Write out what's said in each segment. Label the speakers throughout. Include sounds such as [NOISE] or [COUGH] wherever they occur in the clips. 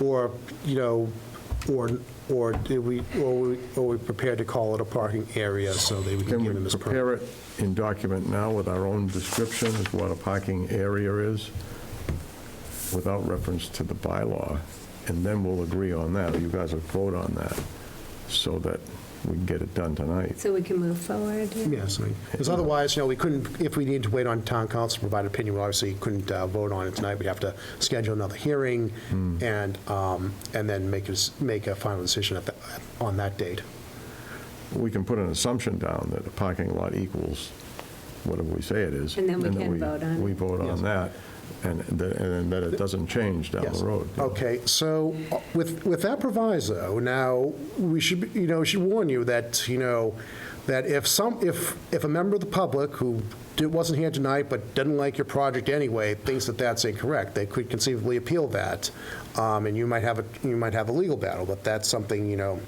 Speaker 1: or, you know, or, or did we, or we, or we prepared to call it a parking area so that we can
Speaker 2: Can
Speaker 1: give them
Speaker 2: we
Speaker 1: this permit?
Speaker 2: prepare it in document now with our own description of what a parking area is, without reference to the bylaw? And then we'll agree on that, you guys will vote on that, so that we can get it done tonight.
Speaker 3: So we can move forward?
Speaker 1: Yes, because otherwise, you know, we couldn't, if we needed to wait on town council to provide opinion, we obviously couldn't uh, vote on it tonight. We'd have to schedule another hearing and, um, and then make, a s- make a final decision at the, on that date.
Speaker 2: We can put an assumption down that a parking lot equals whatever we say it is.
Speaker 3: And then we can vote on it.
Speaker 2: We vote
Speaker 1: Yes.
Speaker 2: on that, and th- and that it doesn't change down
Speaker 1: Yes.
Speaker 2: the road.
Speaker 1: Okay, so uh, with, with that proviso, now, we should, be- you know, should warn you that, you know, that if some, if, if a member of the public who di- wasn't here tonight but didn't like your project anyway, thinks that that's incorrect, they could conceivably appeal that. Um, And you might have, a you might have a legal battle, but that's something, you know,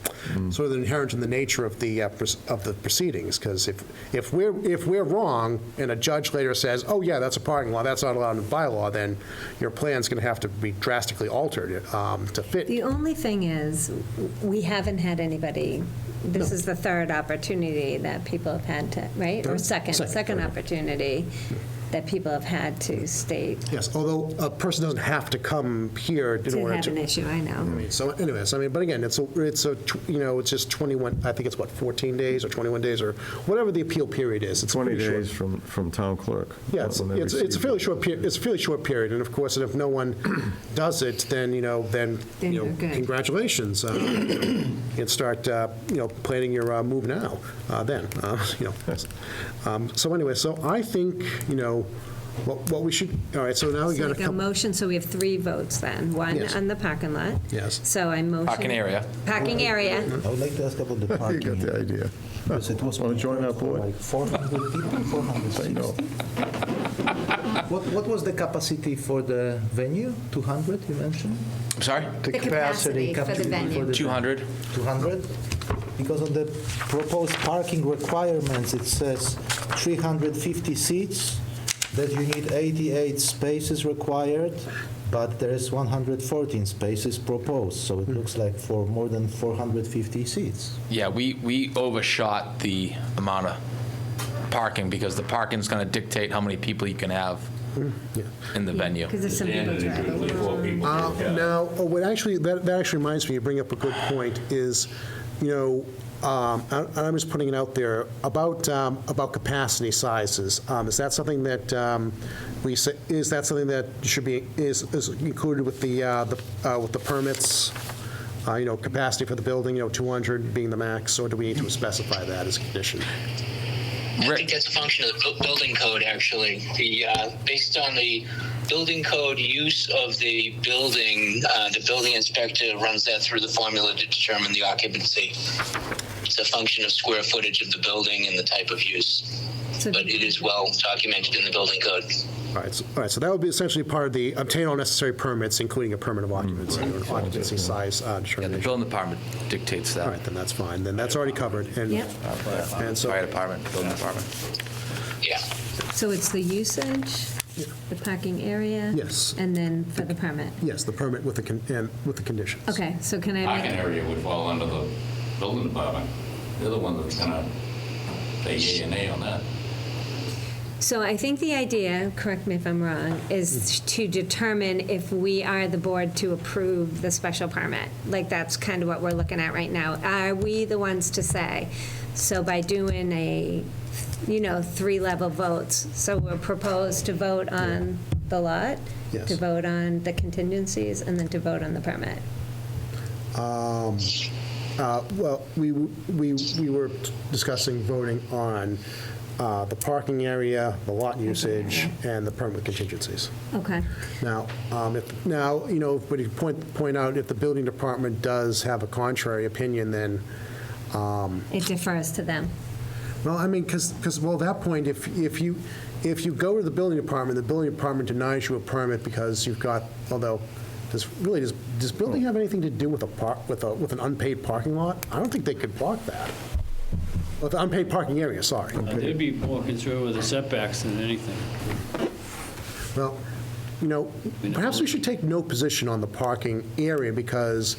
Speaker 1: sort of inherent in the nature of the, uh, pres- of the proceedings. Because if, if we're, if we're wrong and a judge later says, oh, yeah, that's a parking lot, that's not allowed in the bylaw, then your plan's going to have to be drastically altered um, to fit.
Speaker 3: The only thing is, we haven't had anybody, this is the third opportunity that people have had to, right? Or
Speaker 1: Third?
Speaker 3: second,
Speaker 1: Second.
Speaker 3: second opportunity that people have had to state,
Speaker 1: Yes, although a person doesn't have to come here in
Speaker 3: to
Speaker 1: order
Speaker 3: have an
Speaker 1: to. Mm-hmm.
Speaker 3: issue, I know.
Speaker 1: So anyways, I mean, but again, it's, a it's a, tw- you know, it's just 21, I think it's what, 14 days or 21 days or whatever the appeal period is. It's
Speaker 2: 20
Speaker 1: pretty short.
Speaker 2: days from from town clerk.
Speaker 1: Yeah, it's,
Speaker 2: when they
Speaker 1: it's it's a
Speaker 2: receive
Speaker 1: fairly
Speaker 2: it.
Speaker 1: short, peri- it's a fairly short period, and of course, and if no one [CLEARS THROAT] does it, then, you know, then,
Speaker 3: Then
Speaker 1: you
Speaker 3: you're
Speaker 1: know,
Speaker 3: good.
Speaker 1: congratulations. uh, And start, uh, you know, planning your uh, move now, uh, then, uh, [LAUGHS] you know. Um, So anyway, so I think, you know, what what we should, all right, so now we
Speaker 3: So
Speaker 1: got a
Speaker 3: like a
Speaker 1: couple.
Speaker 3: motion, so we have three votes then, one
Speaker 1: Yes.
Speaker 3: on the parking lot.
Speaker 1: Yes.
Speaker 3: So I motion.
Speaker 4: Parking area.
Speaker 3: Parking area,
Speaker 5: I would like to ask about the
Speaker 2: [LAUGHS] You got
Speaker 5: parking.
Speaker 2: the idea.
Speaker 5: Because it was.
Speaker 2: Wanna join our board?
Speaker 5: Like 400 people, 460. What, what was the capacity for the venue? 200, you mentioned?
Speaker 4: I'm sorry?
Speaker 3: The capacity for the
Speaker 5: capacity
Speaker 3: venue.
Speaker 4: 200?
Speaker 5: 200? Because on the proposed parking requirements, it says 350 seats, that you need 88 spaces required, but there is 114 spaces proposed, so
Speaker 2: Hmm.
Speaker 5: it looks like for more than 450 seats.
Speaker 4: Yeah, we, we overshot the amount of parking because the parking's going to dictate how many people you can have in the venue.
Speaker 3: because there's some people driving.
Speaker 1: Uh, Now, oh, what actually, that that actually reminds me, you bring up a good point, is, you know, um, and and I'm just putting it out there, about, um, about capacity sizes. Um, Is that something that um, we, say- is that something that should be, is is included with the, uh, the, uh, with the permits? Uh, You know, capacity for the building, you know, 200 being the max, or do we need to specify that as a condition?
Speaker 6: I
Speaker 4: Rick.
Speaker 6: think that's a function of the bu- building code, actually. The, uh, based on the building code use of the building, uh, the building inspector runs that through the formula to determine the occupancy. It's a function of square footage of the building and the type of use,
Speaker 3: So-
Speaker 6: but it is well documented in the building code.
Speaker 1: All right, so, all right, so that would be essentially part of the obtain all necessary permits, including a permit of occupancy or an occupancy size uh,
Speaker 4: Mm. Yeah, the
Speaker 1: determination.
Speaker 4: building department dictates
Speaker 1: All
Speaker 4: that.
Speaker 1: right, then that's fine, then that's already covered, and,
Speaker 3: Yep.
Speaker 1: and so,
Speaker 4: Fire department, building department.
Speaker 6: Yeah.
Speaker 3: So it's the usage, the parking area.
Speaker 1: Yes.
Speaker 3: And then for the permit.
Speaker 1: yes, the permit with the, con- and with the conditions.
Speaker 3: Okay, so can I make?
Speaker 7: Parking area would fall under the building department. They're the one that's gonna say yea and nay on that.
Speaker 3: So I think the idea, correct me if I'm wrong, is to determine if we are the board to approve the special permit. Like, that's kind of what we're looking at right now. Are we the ones to say? So by doing a, you know, three-level votes, so we're proposed to vote on the lot,
Speaker 1: Yes.
Speaker 3: to vote on the contingencies, and then to vote on the permit.
Speaker 1: Um, Uh, Well, we, we, we were discussing voting on uh, the parking area, the lot usage, and the permit contingencies.
Speaker 3: Okay.
Speaker 1: Now, um, if, now, you know, but you point, point out, if the building department does have a contrary opinion, then,
Speaker 3: It defers to them.
Speaker 1: Well, I mean, because, well, at that point, if, if you, if you go to the building department, the building department denies you a permit because you've got, although, does, really, does, does building have anything to do with a park, with a, with an unpaid parking lot? I don't think they could block that. With an unpaid parking area, sorry.
Speaker 8: They'd be more concerned with the setbacks than anything.
Speaker 1: Well, you know, perhaps we should take no position on the parking area because